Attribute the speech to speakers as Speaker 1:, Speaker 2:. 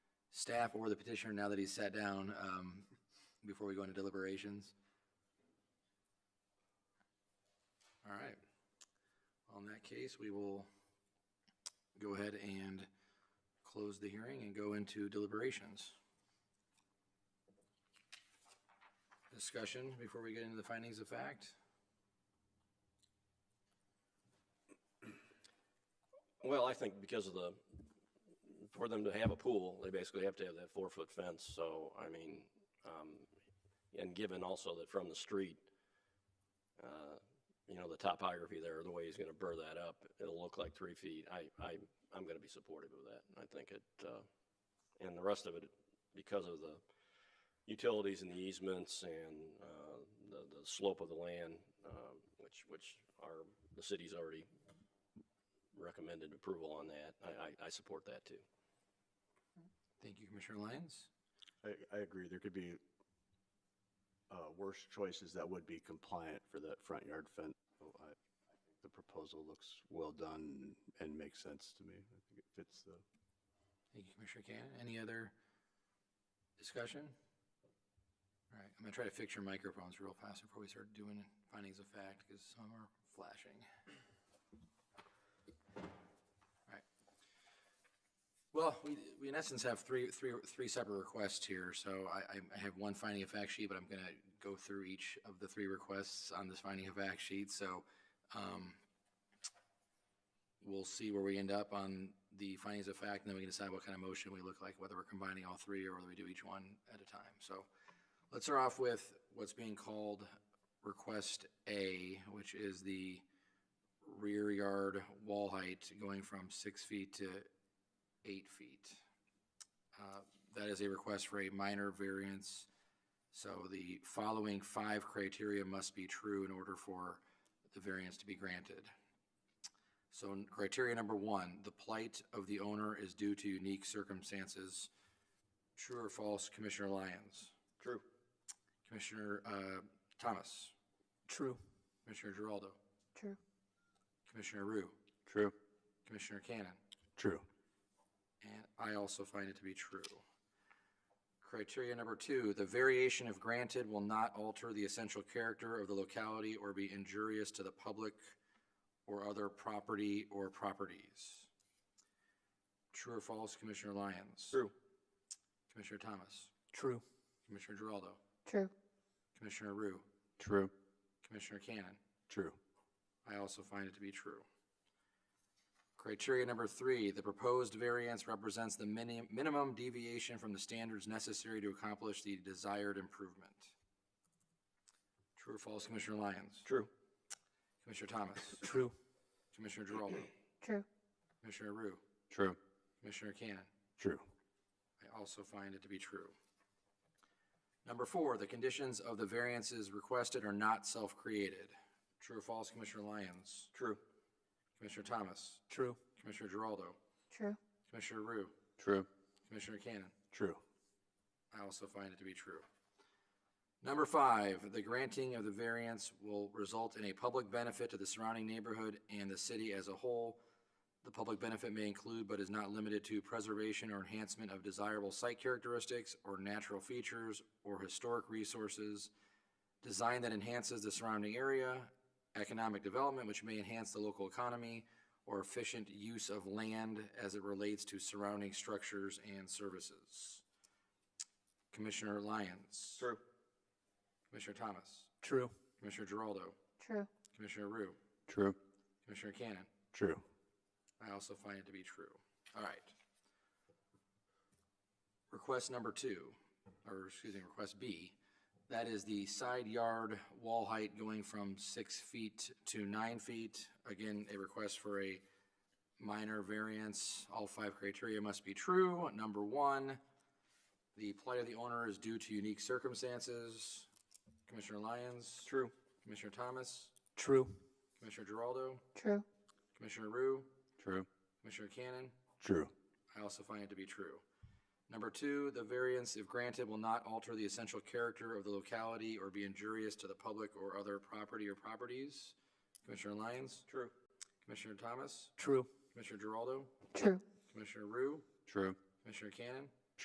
Speaker 1: staff or the petitioner now that he's sat down um, before we go into deliberations? All right. On that case, we will go ahead and close the hearing and go into deliberations. Discussion before we get into the findings of fact?
Speaker 2: Well, I think because of the, for them to have a pool, they basically have to have that four-foot fence, so, I mean, um, and given also that from the street, uh, you know, the topography there, the way he's gonna burr that up, it'll look like three feet. I, I, I'm gonna be supportive of that. I think it, uh, and the rest of it, because of the utilities and the easements and, uh, the, the slope of the land, um, which, which are, the city's already recommended approval on that. I, I, I support that too.
Speaker 1: Thank you, Commissioner Lyons.
Speaker 3: I, I agree. There could be uh, worse choices that would be compliant for that front yard fence. So I- I think The proposal looks well done and makes sense to me. I think it fits the,
Speaker 1: Thank you, Commissioner Cannon. Any other discussion? All right, I'm gonna try to fix your microphones real fast before we start doing findings of fact, because some are flashing. All right. Well, we, we in essence have three, three, three separate requests here, so I, I- I have one finding of fact sheet, but I'm gonna go through each of the three requests on this finding of fact sheet, so, um, we'll see where we end up on the findings of fact, and then we can decide what kind of motion we look like, whether we're combining all three or whether we do each one at a time. So let's start off with what's being called request A, which is the rear yard wall height going from six feet to eight feet. Uh, That is a request for a minor variance. So the following five criteria must be true in order for the variance to be granted. So n- criteria number one, the plight of the owner is due to unique circumstances. True or false, Commissioner Lyons?
Speaker 2: True.
Speaker 1: Commissioner uh, Thomas?
Speaker 4: True.
Speaker 1: Commissioner Giraldo?
Speaker 5: True.
Speaker 1: Commissioner Rue?
Speaker 3: true,
Speaker 1: Commissioner Cannon?
Speaker 3: true,
Speaker 1: And I also find it to be true. Criteria number two, the variation if granted will not alter the essential character of the locality or be injurious to the public or other property or properties. True or false, Commissioner Lyons?
Speaker 2: True.
Speaker 1: Commissioner Thomas?
Speaker 4: True.
Speaker 1: Commissioner Giraldo?
Speaker 5: True.
Speaker 1: Commissioner Rue?
Speaker 3: true,
Speaker 1: Commissioner Cannon?
Speaker 3: true,
Speaker 1: I also find it to be true. Criteria number three, the proposed variance represents the mini- minimum deviation from the standards necessary to accomplish the desired improvement. True or false, Commissioner Lyons?
Speaker 2: True.
Speaker 1: Commissioner Thomas?
Speaker 4: True.
Speaker 1: Commissioner Geraldo?
Speaker 5: True.
Speaker 1: Commissioner Rue?
Speaker 3: true,
Speaker 1: Commissioner Cannon?
Speaker 3: true,
Speaker 1: I also find it to be true. Number four, the conditions of the variances requested are not self-created. True or false, Commissioner Lyons?
Speaker 2: True.
Speaker 1: Commissioner Thomas?
Speaker 4: True.
Speaker 1: Commissioner Geraldo?
Speaker 5: True.
Speaker 1: Commissioner Rue?
Speaker 3: true,
Speaker 1: Commissioner Cannon?
Speaker 3: true,
Speaker 1: I also find it to be true. Number five, the granting of the variance will result in a public benefit to the surrounding neighborhood and the city as a whole. The public benefit may include but is not limited to preservation or enhancement of desirable site characteristics or natural features or historic resources, design that enhances the surrounding area, economic development which may enhance the local economy, or efficient use of land as it relates to surrounding structures and services. Commissioner Lyons.
Speaker 2: True.
Speaker 1: Commissioner Thomas.
Speaker 4: True.
Speaker 1: Commissioner Geraldo.
Speaker 5: True.
Speaker 1: Commissioner Rue.
Speaker 3: true,
Speaker 1: Commissioner Cannon.
Speaker 3: true.
Speaker 1: I also find it to be true. All right. Request number two, or excuse me, request B, that is the side yard wall height going from six feet to nine feet. Again, a request for a minor variance. All five criteria must be true. Number one, the plight of the owner is due to unique circumstances. Commissioner Lyons?
Speaker 2: True.
Speaker 1: Commissioner Thomas?
Speaker 4: True.
Speaker 1: Commissioner Geraldo?
Speaker 5: True.
Speaker 1: Commissioner Rue?
Speaker 3: True.
Speaker 1: Commissioner Cannon?
Speaker 3: True.
Speaker 1: I also find it to be true. Number two, the variance, if granted, will not alter the essential character of the locality or be injurious to the public or other property or properties. Commissioner Lyons?
Speaker 2: True.
Speaker 1: Commissioner Thomas?
Speaker 4: True.
Speaker 1: Commissioner Geraldo?
Speaker 5: True.
Speaker 1: Commissioner Rue?
Speaker 3: True.
Speaker 1: Commissioner Cannon?